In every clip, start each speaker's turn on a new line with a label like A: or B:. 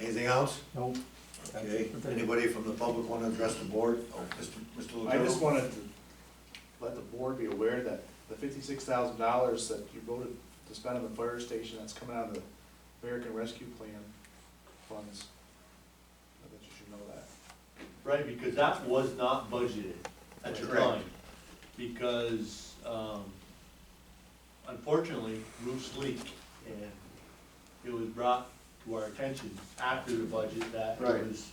A: Anything else?
B: No.
A: Okay, anybody from the public want to address the board? Oh, Mr. Mr.
C: I just
A: Lucero?
C: wanted to let the board be aware that the fifty-six thousand dollars that you voted to spend on the fire station, that's coming out of the American Rescue Plan funds. I bet you should know that.
D: Right, because that was not budgeted at
A: That's
D: the
A: correct.
D: time. Because, um, unfortunately, roofs leak, and it was brought to our attention after the budget that
C: Right.
D: it was,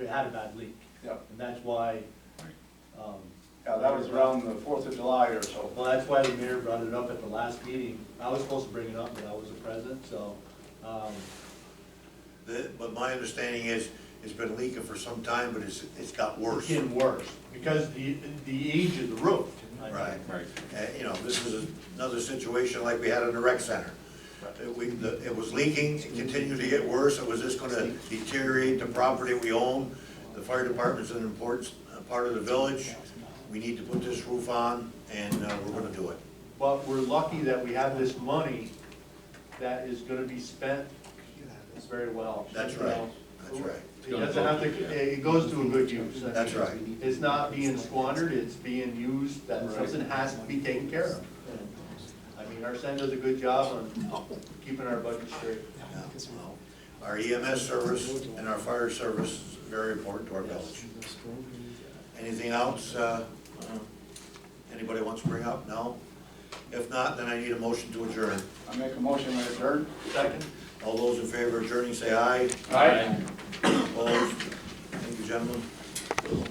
D: it had a bad leak.
E: Yeah.
D: And that's why, um,
E: Yeah, that was around the Fourth of July or so.
D: well, that's why the mayor brought it up at the last meeting. I was supposed to bring it up, but I wasn't present, so, um,
A: The- But my understanding is, it's been leaking for some time, but it's, it's got
D: it's
A: worse. Uh,
D: getting worse, because the, the age of the roof. I think.
A: Right.
E: Right.
A: You know, this is another situation like we had in the rec center. Uh, We, the- it was leaking, it continued to get worse, it was just going to deteriorate the property we own. The fire department's an important uh, part of the village. We need to put this roof on, and uh, we're going to do it.
D: But we're lucky that we have this money that is gonna be spent very well.
A: That's right, that's right.
D: It doesn't have to, it goes to a good use.
A: That's right.
D: It's not being squandered, it's being used, that something has to be taken care of. I mean, our Sen does a good job on keeping our budget straight.
A: Our EMS service and our fire service is very important to our village. Anything else, uh, anybody wants to bring up? No? If not, then I need a motion to adjourn.
E: I make a motion to adjourn.
D: Second?
A: All those in favor of adjourning, say aye.
E: Aye.
A: Opposed? Thank you, gentlemen.